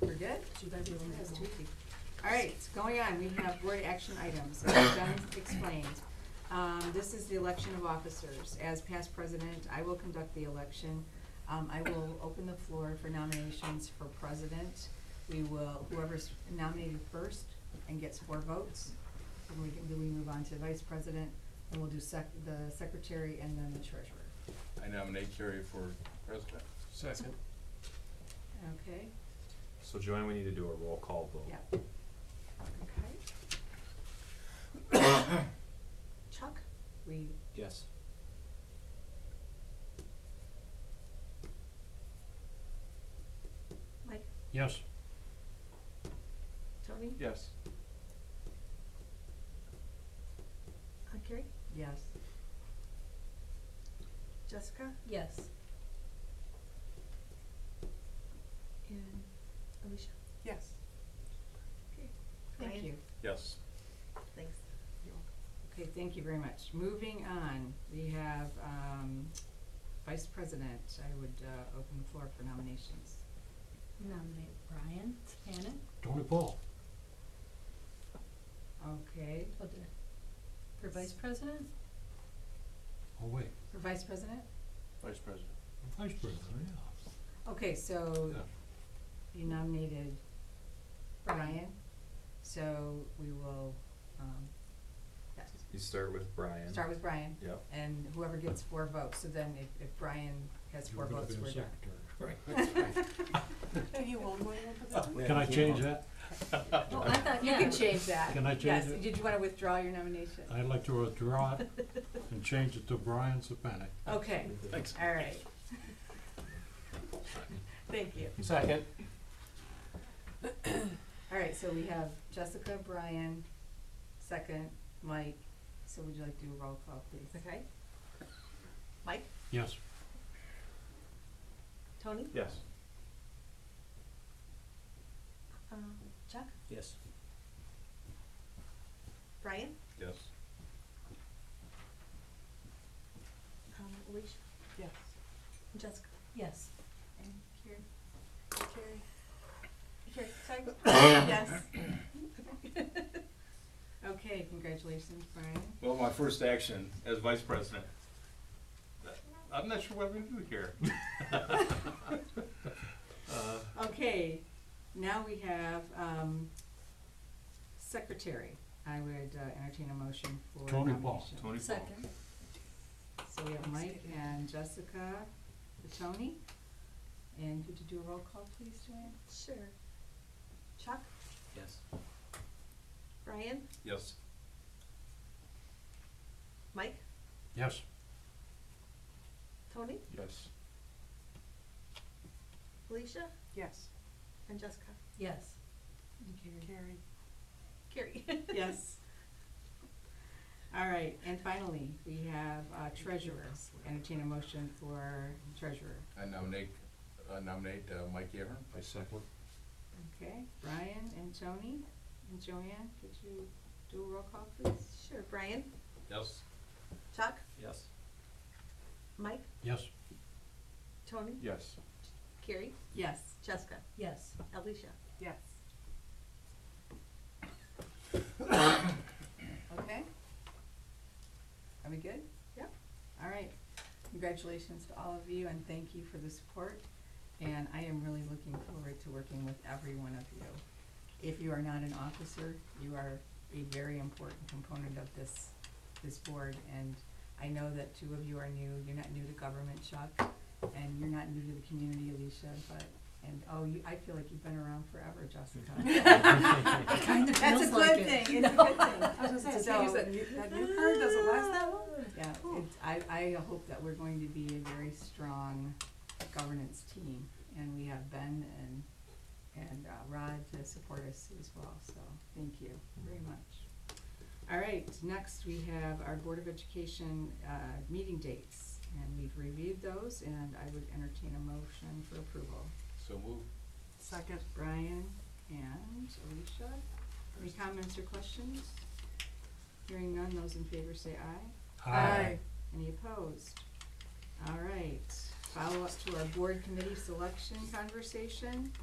We're good? Should I be able to make this tweaky? All right, so going on, we have board action items, as done explained. Um, this is the election of officers. As past president, I will conduct the election. Um, I will open the floor for nominations for president. We will, whoever's nominated first and gets four votes, then we can, then we move on to vice president, and we'll do sec, the secretary and then the treasurer. I nominate Carrie for president. Second. Okay, So Joanne, we need to do a roll call vote. yeah. Okay. Chuck, we Yes. Mike, Yes. Tony, Yes. Uh, Carrie? yes. Jessica? Yes. And Alicia? Yes. Okay. Thank Ryan? you. Yes. Thanks. Okay, thank you very much. Moving on, we have, um, Vice President, I would, uh, open the floor for nominations. Nominate Brian Tanner. Tony Paul. Okay, Oh, did I- For vice president? Oh, wait. for Vice President? Vice president. Vice President, yeah. Okay, so you nominated Brian, so we will, um, yes, You start with Brian. start with Brian, Yep. and whoever gets four votes, so then if, if Brian has four votes, we're done. Have you old one Can I change that? Oh, I thought, You yeah. can change that. Can I change Yes, it? did you wanna withdraw your nomination? I'd like to withdraw it and change it to Brian Sapanic. Okay, Thanks. all right. Thank you. Second. All right, so we have Jessica, Brian, second, Mike. So would you like to do a roll call, please? Okay. Mike? Yes. Tony? Yes. Um, Chuck? Yes. Brian? Yes. Um, Alicia? Yes. And Jessica? Yes. And Carrie? Carrie? Carrie, sorry? Yes. Okay, congratulations, Brian. Well, my first action as vice president. I'm not sure what I'm gonna do here. Okay, now we have, um, secretary. I would uh, entertain a motion for Tony nomination. Paul. Tony Paul. Second. So we have Mike and Jessica, for Tony. And could you do a roll call, please, Joanne? Sure. Chuck? Yes. Brian? Yes. Mike? Yes. Tony? Yes. Alicia? Yes. And Jessica? Yes. Carrie. Carrie? Yes. All right, and finally, we have uh, treasurer. Entertain a motion for treasurer. I nominate, I nominate uh, Mike Ahern. I second. Okay, Brian and Tony and Joanne, could you do a roll call, please? Sure. Brian? Yes. Chuck? Yes. Mike? Yes. Tony? Yes. Carrie? Yes. Jessica? Yes. Alicia? Yes. Okay. Are we good? Yep. All right. Congratulations to all of you and thank you for the support. And I am really looking forward to working with every one of you. If you are not an officer, you are a very important component of this, this board. And I know that two of you are new, you're not new to government, Chuck, and you're not new to the community, Alicia, but, and, oh, you, I feel like you've been around forever, Jessica. It kind of That's a feels like good it. thing, it's a good thing. So- Yeah, it's, I, I hope that we're going to be a very strong governance team, and we have Ben and, and uh, Rod to support us as well, so, thank you very much. All right, next we have our Board of Education, uh, meeting dates, and we've reviewed those, and I would entertain a motion for approval. So move. Second. Brian and Alicia, any comments or questions? Hearing none, those in favor say aye. Any opposed? All right, follow up to our board committee selection conversation.